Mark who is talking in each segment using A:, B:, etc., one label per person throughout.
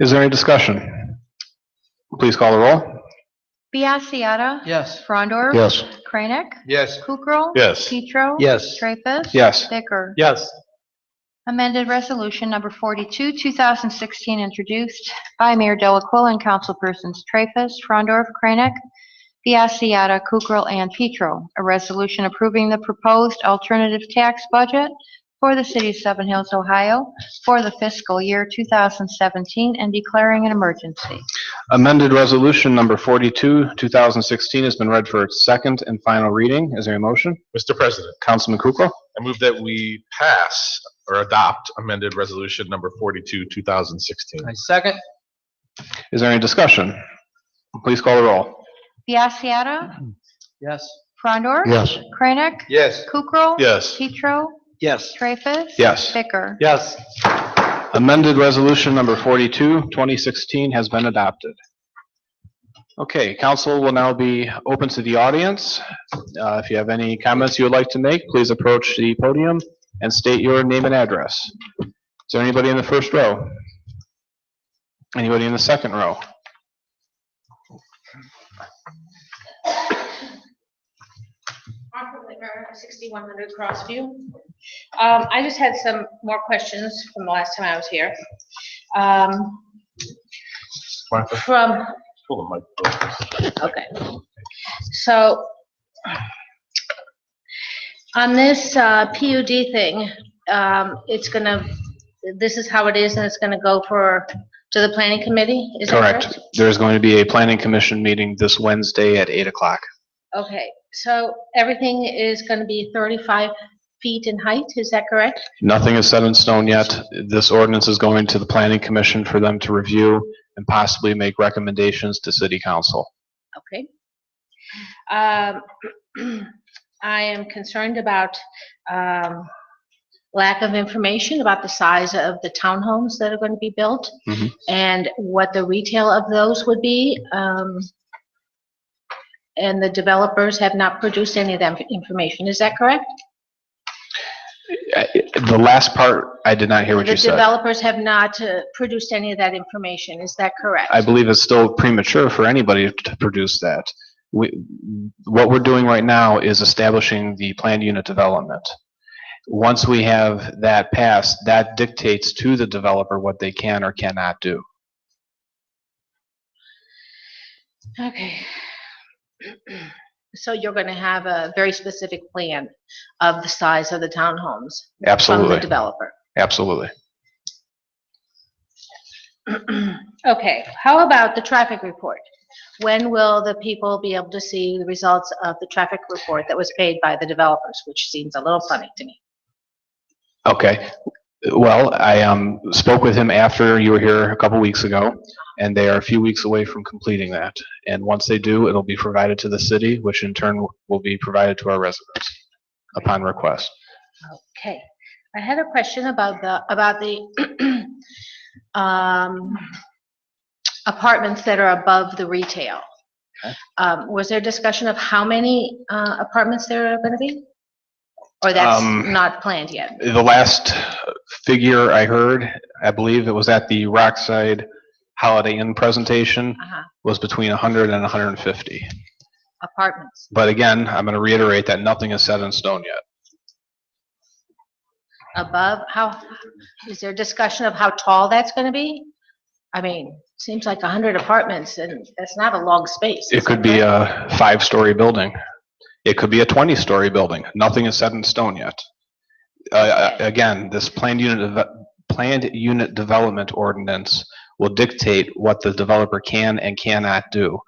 A: Is there any discussion? Please call the roll.
B: Biassiata.
C: Yes.
B: Frondor.
A: Yes.
B: Kranek.
C: Yes.
B: Kukrow.
A: Yes.
B: Petro.
C: Yes.
B: Traffus.
A: Yes.
B: Bicker.
C: Yes.
B: Amended Resolution Number 42, 2016, introduced by Mayor Delacqua and councilpersons Traffus, Frondorf, Kranek, Biassiata, Kukrow, and Petro. A resolution approving the proposed alternative tax budget for the city of Seven Hills, Ohio for the fiscal year 2017 and declaring an emergency.
A: Amended Resolution Number 42, 2016 has been read for its second and final reading. Is there a motion?
D: Mr. President,
A: Councilman Kukrow.
D: I move that we pass or adopt amended resolution number 42, 2016.
C: I second.
A: Is there any discussion? Please call the roll.
B: Biassiata.
C: Yes.
B: Frondor.
A: Yes.
B: Kranek.
C: Yes.
B: Kukrow.
D: Yes.
B: Petro.
C: Yes.
B: Traffus.
A: Yes.
B: Bicker.
C: Yes.
A: Amended Resolution Number 42, 2016 has been adopted. Okay, council will now be open to the audience. Uh, If you have any comments you would like to make, please approach the podium and state your name and address. Is there anybody in the first row? Anybody in the second row?
E: Martha Whitner, 6100 Crossview. Um, I just had some more questions from the last time I was here. Um,
D: Martha,
E: From,
D: pull the mic close.
E: okay. So on this uh, PUD thing, um, it's gonna, this is how it is, and it's gonna go for, to the planning committee? Is that
A: Correct. There's going to be a planning commission meeting this Wednesday at 8 o'clock.
E: Okay, so everything is gonna be 35 feet in height, is that correct?
A: Nothing is set in stone yet. This ordinance is going to the planning commission for them to review and possibly make recommendations to city council.
E: Okay. Um, I am concerned about um, lack of information about the size of the townhomes that are going to be built
A: Mhm.
E: and what the retail of those would be. um, And the developers have not produced any of that information. Is that correct?
A: Uh, The last part, I did not hear what you
E: The
A: said.
E: developers have not uh, produced any of that information. Is that correct?
A: I believe it's still premature for anybody to produce that. We, what we're doing right now is establishing the planned unit development. Once we have that passed, that dictates to the developer what they can or cannot do.
E: Okay. So you're going to have a very specific plan of the size of the townhomes from the
A: Absolutely,
E: developer?
A: absolutely.
E: Okay, how about the traffic report? When will the people be able to see the results of the traffic report that was paid by the developers, which seems a little funny to me?
A: Okay, well, I um, spoke with him after you were here a couple weeks ago, and they are a few weeks away from completing that. And once they do, it'll be provided to the city, which in turn will be provided to our residents upon request.
E: Okay, I had a question about the, about the um, apartments that are above the retail.
A: Okay.
E: Um, Was there discussion of how many uh, apartments there are going to be? Or that's
A: Um,
E: not planned yet?
A: The last figure I heard, I believe it was at the Rockside Holiday Inn presentation,
E: Uh-huh,
A: was between 100 and 150.
E: Apartments.
A: But again, I'm going to reiterate that nothing is set in stone yet.
E: above, how, is there discussion of how tall that's going to be? I mean, seems like 100 apartments, and that's not a long space.
A: It
E: is
A: could
E: that
A: be
E: correct?
A: a five-story building. It could be a 20-story building. Nothing is set in stone yet. Uh, Again, this planned unit, deve- planned unit development ordinance will dictate what the developer can and cannot do.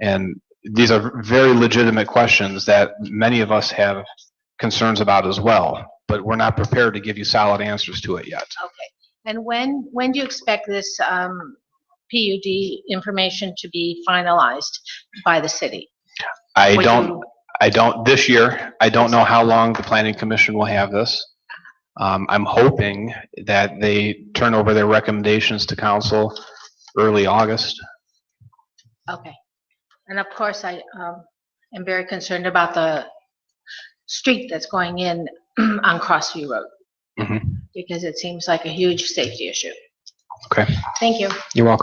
A: And these are very legitimate questions that many of us have concerns about as well, but we're not prepared to give you solid answers to it yet.
E: Okay. And when, when do you expect this um, PUD information to be finalized by the city?
A: I
E: Would
A: don't,
E: you-
A: I don't, this year, I don't know how long the planning commission will have this. Um, I'm hoping that they turn over their recommendations to council early August.
E: Okay. And of course, I um, am very concerned about the street that's going in on Crossview Road.
A: Mhm.
E: Because it seems like a huge safety issue.
A: Okay.
E: Thank you.
A: You're welcome.